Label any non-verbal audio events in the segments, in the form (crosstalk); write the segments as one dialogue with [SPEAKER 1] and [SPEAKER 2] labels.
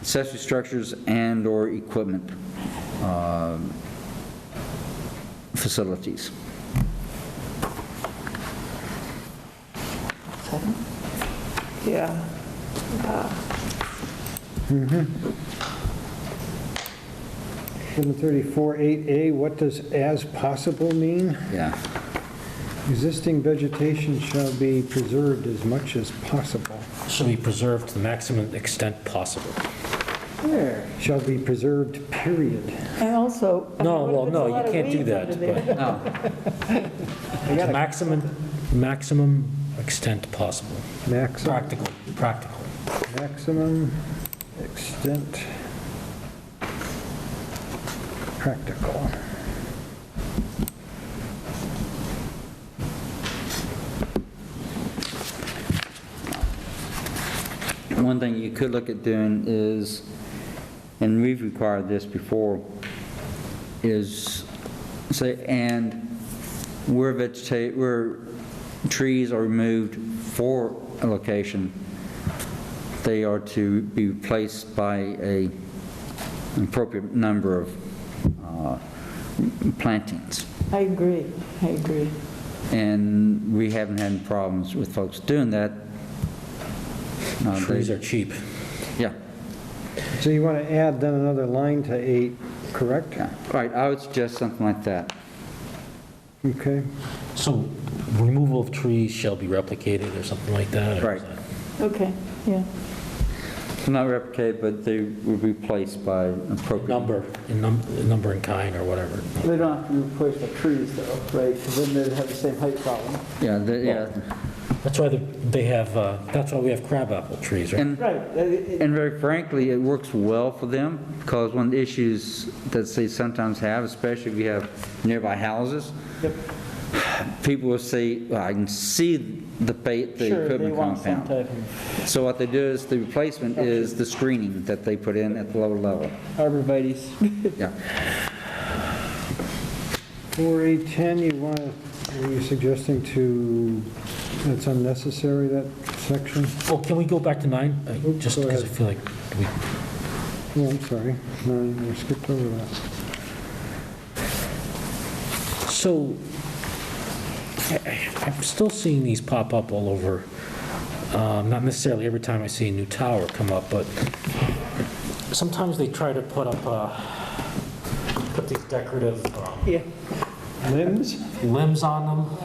[SPEAKER 1] accessory structures and/or equipment um, facilities.
[SPEAKER 2] Yeah.
[SPEAKER 3] Number 34.8A, what does "as possible" mean?
[SPEAKER 1] Yeah.
[SPEAKER 3] Existing vegetation shall be preserved as much as possible.
[SPEAKER 4] Shall be preserved to the maximum extent possible.
[SPEAKER 3] Shall be preserved, period.
[SPEAKER 2] And also. I mean,
[SPEAKER 4] No,
[SPEAKER 2] what if
[SPEAKER 4] well,
[SPEAKER 2] it's a
[SPEAKER 4] no,
[SPEAKER 2] lot
[SPEAKER 4] you
[SPEAKER 2] of
[SPEAKER 4] can't do
[SPEAKER 2] weeds under
[SPEAKER 4] that,
[SPEAKER 2] there?
[SPEAKER 4] but (laughs) to maximum, maximum extent possible.
[SPEAKER 3] Maximum,
[SPEAKER 4] Practical, practical.
[SPEAKER 3] maximum extent practical.
[SPEAKER 1] One thing you could look at doing is, and we've required this before, is say, and where vegeta, where trees are removed for a location, they are to be replaced by a an appropriate number of uh, plantings.
[SPEAKER 2] I agree, I agree.
[SPEAKER 1] And we haven't had problems with folks doing that. Uh, they-
[SPEAKER 4] Trees are cheap.
[SPEAKER 1] Yeah.
[SPEAKER 3] So you want to add then another line to 8, correct?
[SPEAKER 1] Yeah, all right, I would suggest something like that.
[SPEAKER 3] Okay,
[SPEAKER 4] So removal of trees shall be replicated or something like that? or
[SPEAKER 1] Right.
[SPEAKER 2] Okay, yeah.
[SPEAKER 1] Not replicate, but they would be replaced by appropriate.
[SPEAKER 4] Number, in num- number and kind or whatever.
[SPEAKER 5] They don't have to be replaced by trees though, right? Because then they'd have the same height problem.
[SPEAKER 1] Yeah, the- yeah,
[SPEAKER 4] That's why the- they have, uh, that's why we have crabapple trees, right?
[SPEAKER 1] and,
[SPEAKER 5] Right. uh, They-
[SPEAKER 1] and very frankly, it works well for them, because one of the issues that they sometimes have, especially if you have nearby houses,
[SPEAKER 5] Yep.
[SPEAKER 1] people will say, "Well, I can see the bait, the
[SPEAKER 5] Sure, they
[SPEAKER 1] equipment
[SPEAKER 5] want some
[SPEAKER 1] compound.
[SPEAKER 5] type of
[SPEAKER 1] So what they do is, the replacement is the screening that they put in at the lower level.
[SPEAKER 5] arborvitae's.
[SPEAKER 1] Yeah,
[SPEAKER 3] 4A10, you want, are you suggesting to, that's unnecessary, that section?
[SPEAKER 4] Oh, can we go back to nine? Uh,
[SPEAKER 3] Oops,
[SPEAKER 4] Just
[SPEAKER 3] go
[SPEAKER 4] because I
[SPEAKER 3] ahead.
[SPEAKER 4] feel like we
[SPEAKER 3] Oh, I'm sorry, no, I skipped over that.
[SPEAKER 4] So, I- I- I'm still seeing these pop up all over, Um, not necessarily every time I see a new tower come up, but sometimes they try to put up, uh, put these decorative um,
[SPEAKER 2] Yeah.
[SPEAKER 3] Limbs?
[SPEAKER 4] limbs on them.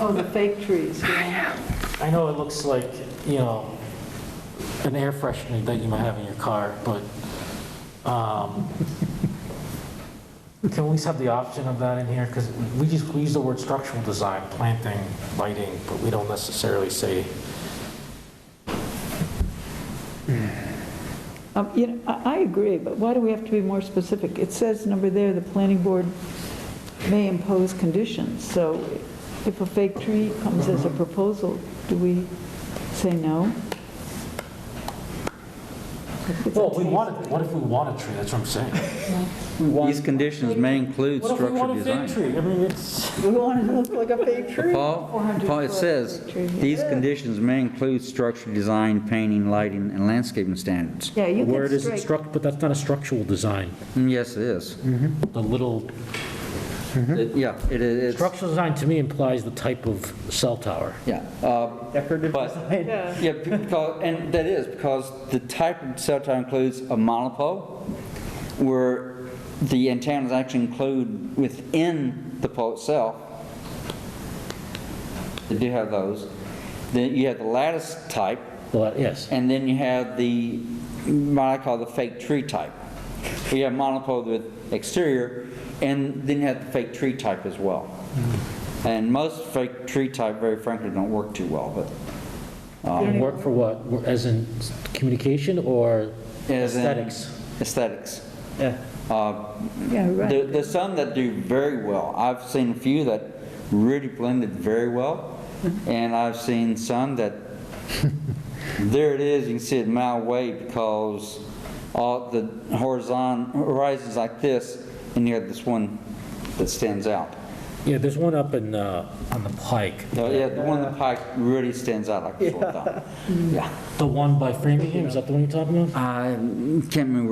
[SPEAKER 2] Oh, the fake trees, yeah.
[SPEAKER 4] I know it looks like, you know, an air freshener that you might have in your car, but
[SPEAKER 2] (laughs)
[SPEAKER 4] um, can we at least have the option of that in here? Because we just, we use the word structural design, planting, lighting, but we don't necessarily say,
[SPEAKER 2] Um, You know, I, I agree, but why do we have to be more specific? It says number there, the planning board may impose conditions, so if a fake tree comes as a
[SPEAKER 4] Mm-hmm.
[SPEAKER 2] proposal, do we say no? It's
[SPEAKER 4] well,
[SPEAKER 2] okay.
[SPEAKER 4] we want it, what if we want a tree? That's what I'm saying.
[SPEAKER 1] these conditions may include
[SPEAKER 4] What if we
[SPEAKER 1] structural
[SPEAKER 4] want a
[SPEAKER 1] design.
[SPEAKER 4] fig tree? I mean, it's,
[SPEAKER 2] We want it to look like a fake tree.
[SPEAKER 1] Paul,
[SPEAKER 2] 400
[SPEAKER 1] Paul, it
[SPEAKER 2] foot
[SPEAKER 1] says,
[SPEAKER 2] tree.
[SPEAKER 1] these conditions may include structure design, painting, lighting, and landscaping standards.
[SPEAKER 2] Yeah, you
[SPEAKER 4] where it
[SPEAKER 2] can
[SPEAKER 4] is it
[SPEAKER 2] strike.
[SPEAKER 4] struct, but that's not a structural design.
[SPEAKER 1] Mm, Yes, it is.
[SPEAKER 4] The little,
[SPEAKER 1] It- Yeah, it is, it's-
[SPEAKER 4] structural design to me implies the type of cell tower.
[SPEAKER 1] yeah. uh,
[SPEAKER 5] Decorative
[SPEAKER 1] But-
[SPEAKER 5] design.
[SPEAKER 2] Yeah.
[SPEAKER 1] Yeah, because, and that is because the type of cell tower includes a monopole where the antennas actually include within the pole itself. They do have those. Then you have the lattice type,
[SPEAKER 4] Well, yes.
[SPEAKER 1] and then you have the, what I call the fake tree type. So you have monopole with exterior, and then you have the fake tree type as well. And most fake tree type, very frankly, don't work too well, but.
[SPEAKER 4] Um, Work for what? As in communication or
[SPEAKER 1] As in-
[SPEAKER 4] aesthetics?
[SPEAKER 1] Aesthetics.
[SPEAKER 5] Yeah.
[SPEAKER 1] Uh,
[SPEAKER 2] Yeah, right.
[SPEAKER 1] there- There's some that do very well. I've seen a few that really blended very well, and I've seen some (laughs) that, there it is, you can see it a mile away because all the horizon, horizon's like this, and you have this one that stands out.
[SPEAKER 5] Yeah, there's one up in, uh, on the Pike,
[SPEAKER 1] No, Yeah, the one in the park really stands out like a sore thumb. (laughs) Yeah.
[SPEAKER 5] the one by Framingham, is that the one you're talking about?
[SPEAKER 1] I can't remember